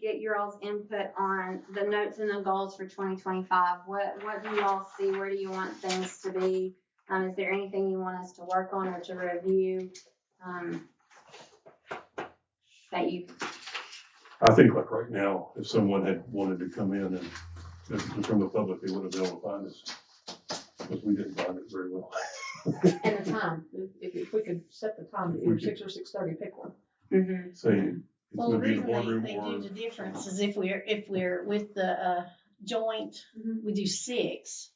your all's input on the notes and the goals for twenty twenty-five. What, what do you all see? Where do you want things to be? Um, is there anything you want us to work on or to review? Um, that you, I think like right now, if someone had wanted to come in and, and from the public, they would have been able to find us. Because we didn't find it very well. And the time, if, if we could set the time, If we either could. six or six thirty, pick one. Mhm. Say, it's Well, the gonna be in reason the boardroom they, they or, do the difference is if we're, if we're with the, uh, joint, Mm-hmm. Mhm. we do six.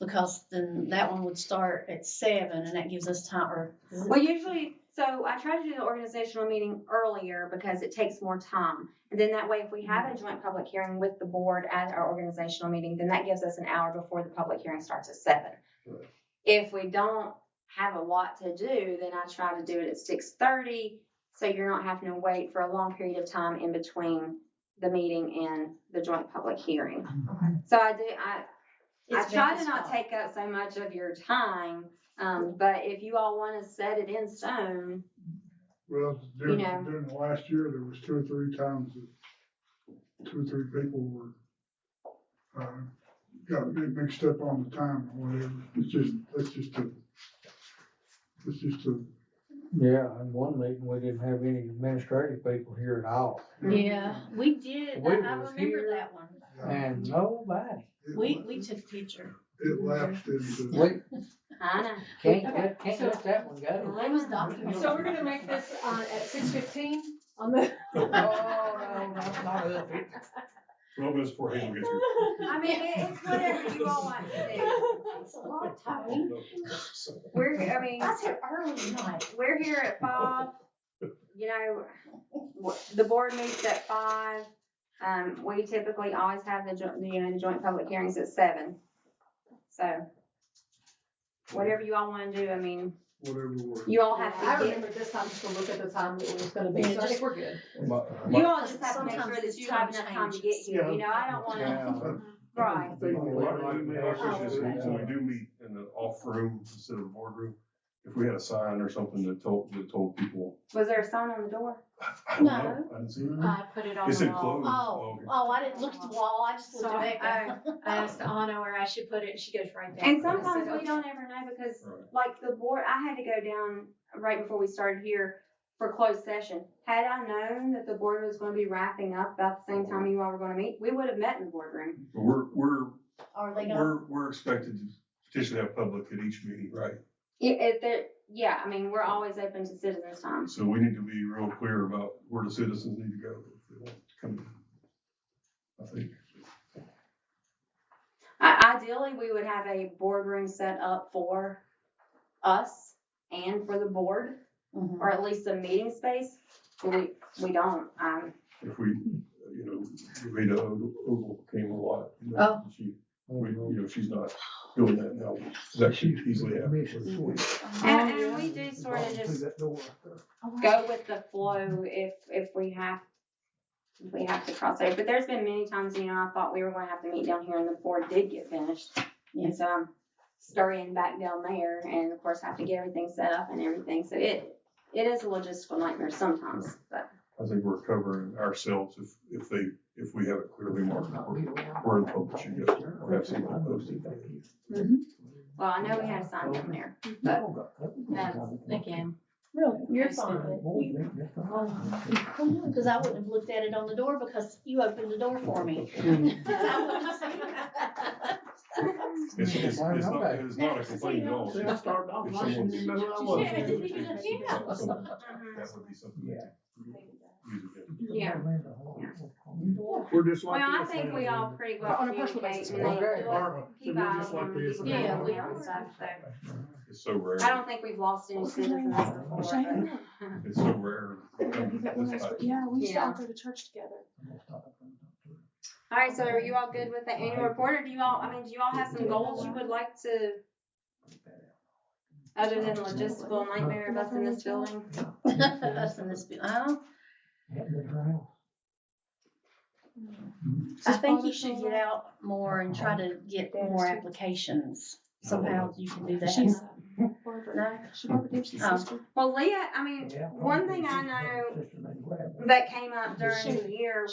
Because then that one would start at seven and that gives us time, or, Well, usually, so I try to do the organizational meeting earlier because it takes more time. And then that way, if we have a joint public hearing with the board at our organizational meeting, then that gives us an hour before the public hearing starts at seven. Right. If we don't have a lot to do, then I try to do it at six thirty, so you're not having to wait for a long period of time in between the meeting and the joint public hearing. So I do, I, I It's try to Becky's not fault. take up so much of your time, um, but if you all want to set it in stone, Well, during, know. during the last year, there was two or three times that two or three people were, uh, got mi- mixed up on the time or whatever. It's just, that's just a, it's just a, Yeah, in one meeting, we didn't have any administrative people here at all, yeah, we did, I, We I was remember here. that one, and nobody. it we, la- we took a picture. It lapsed into, We I know. can't let, can't let that one go. It was documented. So we're gonna make this, uh, at six fifteen on the. Oh, no, that's not up here. well, that's for Hayden gets here. I mean, it- it's whatever you all want to do. That's a long time. We're, I mean, That's an early night. we're here at five, you know, w- the board meets at five. Um, we typically always have the joint, you know, the joint public hearings at seven. So whatever you all want to do, I mean, whatever worked. you all have I to get, remember this time just to look at the time that it was gonna be, Yeah, so I just- think we're good. you all just have to make Sometimes sure that you have time enough time to get changes. here, you know, I don't Oh, want to, Yeah. right. I think we Well, might I- need my to ask office is, this. When we do meet in the off room instead of boardroom, if we had a sign or something that told, that told people, Was there a sign on the door? I don't know, No. I didn't see Mm-hmm. it. I put it on It's the wall. enclosed. Oh, oh, I didn't look at the wall, I just So looked I, at Becca. I asked Anna where I should put it, and she goes right there. And So I sometimes said, we don't ever know because Right. like the board, I had to go down right before we started here for closed session. Had I known that the board was gonna be wrapping up about the same time you all were gonna meet, we would have met in the boardroom. But We're, we're, Or they gonna, we're, we're expected to potentially have public at each meeting, right? If, if there, yeah, I mean, we're always open to citizens' time. So we need to be real clear about where the citizens need to go if they want to come in. I think. I, ideally, we would have a boardroom set up for us and for the board, Mhm. or at least a meeting space. But we, we don't, um, if we, you know, Rita Ogle came a lot. you know, Oh. She, we, you know, she's not doing that now. That should easily happen. And, and we do sort of just go with the flow if, if we have, if we have to cross over. But there's been many times, you know, I thought we were gonna have to meet down here and the board did get finished. Yeah. And so I'm scurrying back down there and of course have to get everything set up and everything. So it, it is a logistical nightmare sometimes, but I think we're covering ourselves if, if they, if we have it clearly marked. We're- Mm-hmm. We're in public, "Oh, you guys, or have something posted. well, I know we had a sign down there. That's, again, Really? You're That's fine. You- cause I wouldn't have looked at it on the door because you opened the door for me. I wouldn't have seen it. It's, it's, it's not, it's not a complaint at all. See, I started off If watching you, someone's- remember I was. Yeah, I didn't even- That would be something. that- Yeah. We're just Well, like. I this, think we man. all pretty well On a personal communicate basis, and they we're very do it. Barbara, Keep we're eyes just like on this, people man. Yeah, we and stuff, so. It's so rare. I don't think we've lost any citizens before, but. It's so rare. You've got one that's- Yeah, we used to Yeah. all go to church together. All right, so are you all good with the annual report, or do you all, I mean, do you all have some goals you would like to, other than logistical nightmare of us in this building? Us in this, bu- oh, Mm-hmm. I think you should get out more and try to get more applications. Somehow you can do that. She's, Barbara, No? she Barbara Gibson's Oh. sister. Well, Leah, I mean, one thing I know that came up during the year